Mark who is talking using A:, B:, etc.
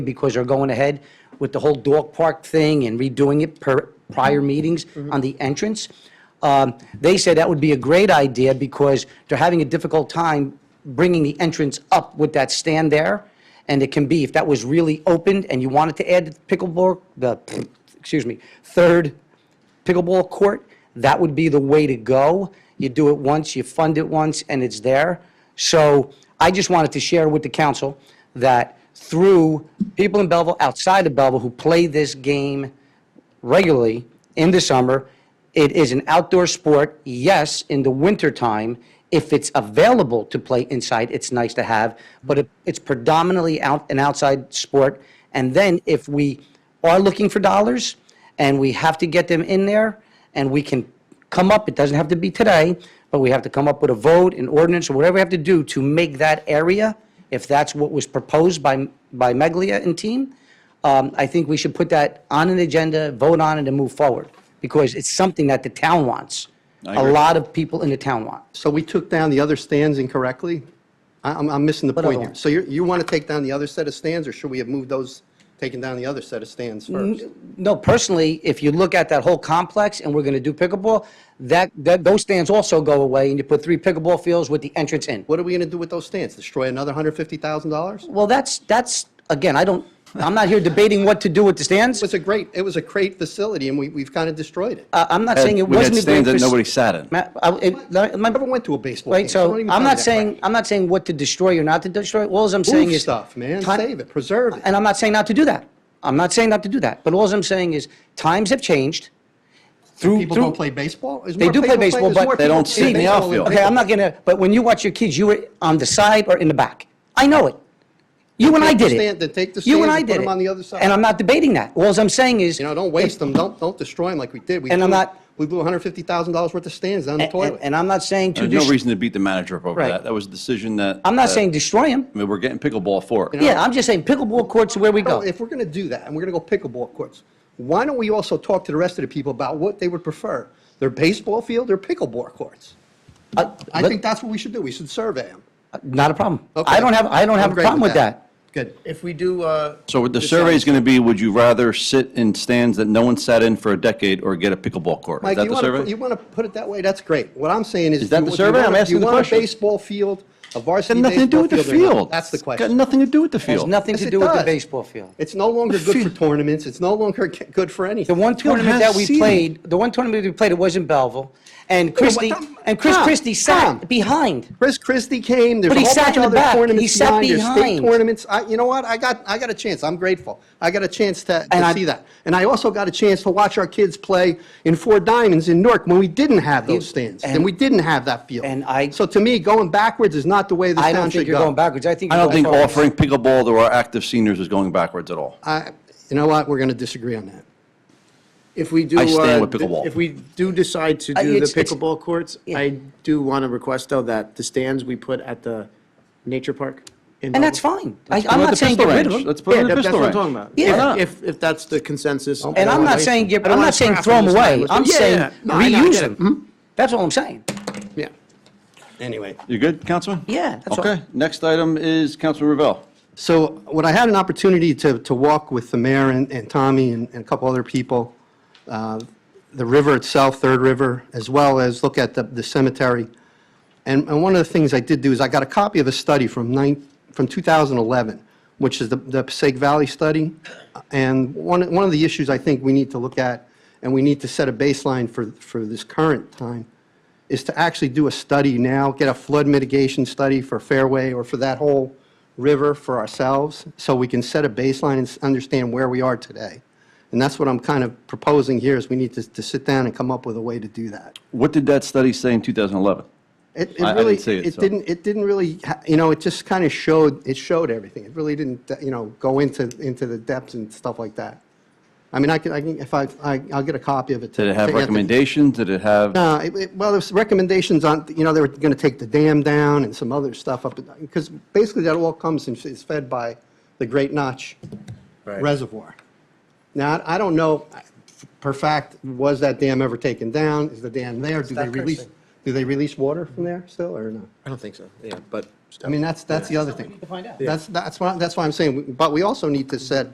A: because they're going ahead with the whole dog park thing and redoing it per prior meetings on the entrance. Um, They said that would be a great idea because they're having a difficult time bringing the entrance up with that stand there. And it can be, if that was really opened and you wanted to add the pickleball, the, excuse me, third pickleball court, that would be the way to go. You do it once, you fund it once, and it's there. So I just wanted to share with the council that through people in Belleville, outside of Belleville, who play this game regularly in the summer, it is an outdoor sport, yes, in the wintertime. If it's available to play inside, it's nice to have, but it- it's predominantly out, an outside sport. And then if we are looking for dollars, and we have to get them in there, and we can come up, it doesn't have to be today, but we have to come up with a vote, an ordinance, or whatever we have to do to make that area, if that's what was proposed by, by Meglia and team, um, I think we should put that on an agenda, vote on it, and move forward, because it's something that the town wants.
B: I
A: A
B: agree.
A: lot of people in the town want.
C: So we took down the other stands incorrectly? I- I'm, I'm missing the
A: other
C: point here.
A: ones?
C: So you, you want to take down the other set of stands, or should we have moved those, taken down the other set of stands first?
A: No, personally, if you look at that whole complex and we're going to do pickleball, that, that, those stands also go away, and you put three pickleball fields with the entrance in.
C: What are we going to do with those stands? Destroy another $150,000?
A: Well, that's, that's, again, I don't, I'm not here debating what to do with the stands.
C: It was a great, it was a great facility, and we, we've kind of destroyed it.
A: I- Uh, I'm not saying it
B: We had
A: wasn't a great.
B: stands that
A: fac-
B: nobody sat in.
A: Ma- I- it- no, my-
C: Never went to a baseball game.
A: Right, so
C: don't even
A: I'm
C: tell me
A: not
C: that
A: saying,
C: crap.
A: I'm not saying what to destroy or not to destroy. All I'm saying
C: Move
A: is.
C: stuff, man.
A: Ti-
C: Save it, preserve it.
A: And I'm not saying not to do that. I'm not saying not to do that. But all I'm saying is, times have changed through.
C: People
A: through-
C: don't play baseball? There's
A: They
C: more
A: do play
C: people
A: baseball,
C: there's
A: but-
C: more
A: They
C: people
B: don't
C: playing
B: see the
C: baseball than
B: outfield.
A: Okay, I'm
C: baseball.
A: not gonna, but when you watch your kids, you were on the side or in the back. I know it. You and I
C: Take the
A: did it.
C: stand- then take the
A: You and
C: stands
A: I
C: and put
A: did
C: them
A: it.
C: on the other side.
A: And I'm not debating that. All I'm saying is.
C: You know, don't waste them, don't, don't destroy them like we did. We
A: And I'm
C: blew-
A: not-
C: We blew $150,000 worth of stands down the
A: And-
C: toilet.
A: And, and I'm not saying to.
B: There's no
A: dest-
B: reason uh, to beat the manager up over
A: Right.
B: that. That was a decision that.
A: I'm not
B: that-
A: saying destroy them.
B: I mean, we're getting pickleball for it.
A: Yeah, I'm just saying pickleball courts are where we go.
C: Well, if we're going to do that, and we're going to go pickleball courts, why don't we also talk to the rest of the people about what they would prefer? Their baseball field or pickleball courts?
A: Uh,
C: I
A: let-
C: think that's what we should do. We should survey them.
A: Not a problem.
C: Okay.
A: I don't have, I don't
C: I'm
A: have a
C: great
A: problem with that.
C: Good.
D: If we do, uh.
B: So the survey is
D: decide-
B: going to be, would you rather sit in stands that no one sat in for a decade or get a pickleball court? Is
C: Mike,
B: that
C: you
B: the
C: want to,
B: survey?
C: you want to put it that way, that's great. What I'm saying is.
B: Is that
C: do
B: the
C: you- do you
B: survey?
C: want a-
B: I'm asking
C: Do
B: the
C: you want a
B: question.
C: baseball field, a
B: Got
C: varsity
B: nothing to do
C: baseball
B: with the
C: field or not?
B: field.
C: That's the
B: It's Got
C: question.
B: nothing to do with the field.
A: Has nothing
C: Yes,
A: to
C: it
A: do with the
C: does.
A: baseball field.
C: It's no longer good for tournaments, it's no longer g- good for anything.
A: The one tournament
B: have
A: that we
B: seating.
A: played, the one tournament we played, it was in Belleville, and Christie,
C: Tom-
A: and Chris
C: Tom,
A: Christie
C: Tom.
A: sat behind.
C: Chris Christie came. There's
A: But he
C: a whole
A: sat
C: bunch
A: in
C: of
A: the
C: other
A: back. He
C: tournaments.
A: sat
C: behind. There's
A: behind.
C: state tournaments. I, you know what? I got I got a chance. I'm grateful. I got a chance to, to
A: And I-
C: see that, and I also got a chance to watch our kids play in Four Diamonds in Newark when we didn't have those stands and,
A: and-
C: we didn't have that field.
A: and I-
C: so to me, going backwards is not the way this
A: I
C: town
A: don't think
C: should
A: you're
C: go.
A: going backwards. I think.
B: I
A: you're
B: don't
A: going
B: think
A: forward.
B: offering pickleball to our active seniors is going backwards at all.
C: I, you know what? We're going to disagree on that.
D: If we do.
B: I stand
D: uh,
B: with pickleball.
D: If we do decide to
A: Uh,
D: do the
A: it's- it's-
D: pickleball courts,
A: Yeah.
D: I do want to request though that the stands we put at the nature park. in
A: And that's
D: Belleville-
A: fine. I- I'm not saying get rid of them.
B: Let's put it
D: Yeah,
B: in the
D: that- that's
B: pistol
D: what I'm
B: range.
D: talking about.
A: Yeah.
D: If- If, if that's the consensus.
A: And I'm not saying get, I'm not saying throw them away. I'm saying reuse them. That's all I'm saying.
C: Hmm? Yeah. Anyway.
B: You good, Councilman?
A: Yeah, that's all.
B: Okay, next item is Councilman Revelle.
C: So when I had an opportunity to, to walk with the mayor and, and Tommy and, and a couple other people, uh, the river itself, Third River, as well as look at the, the cemetery. And, and one of the things I did do is I got a copy of a study from nine, from 2011, which is the, the Passaic Valley Study. And one, one of the issues I think we need to look at, and we need to set a baseline for, for this current time, is to actually do a study now, get a flood mitigation study for Fairway or for that whole river for ourselves, so we can set a baseline and s- understand where we are today. And that's what I'm kind of proposing here, is we need to, to sit down and come up with a way to do that.
B: What did that study say in 2011?
C: It,
B: I- I
C: it really,
B: didn't see it,
C: it
B: so-
C: didn't, it didn't really, ha- you know, it just kind of showed, it showed everything. It really didn't, uh, you know, go into, into the depths and stuff like that. I mean, I can, I can, if I, I- I'll get a copy of it. to-
B: Did it have
C: to Anthony.
B: recommendations? Did it have?
C: No, Uh, it- it- well, there's recommendations on, you know, they were going to take the dam down and some other stuff up, because basically that all comes and is fed by the Great Notch Reservoir. Now, I- I don't know, per fact, was that dam ever taken down? Is the dam there? Do they release, do they release water from there still, or no?
D: I don't think so, yeah, but
C: I mean, that's, that's the other thing.
A: to find out.
C: That's, that's why, that's why I'm saying, but we also need to set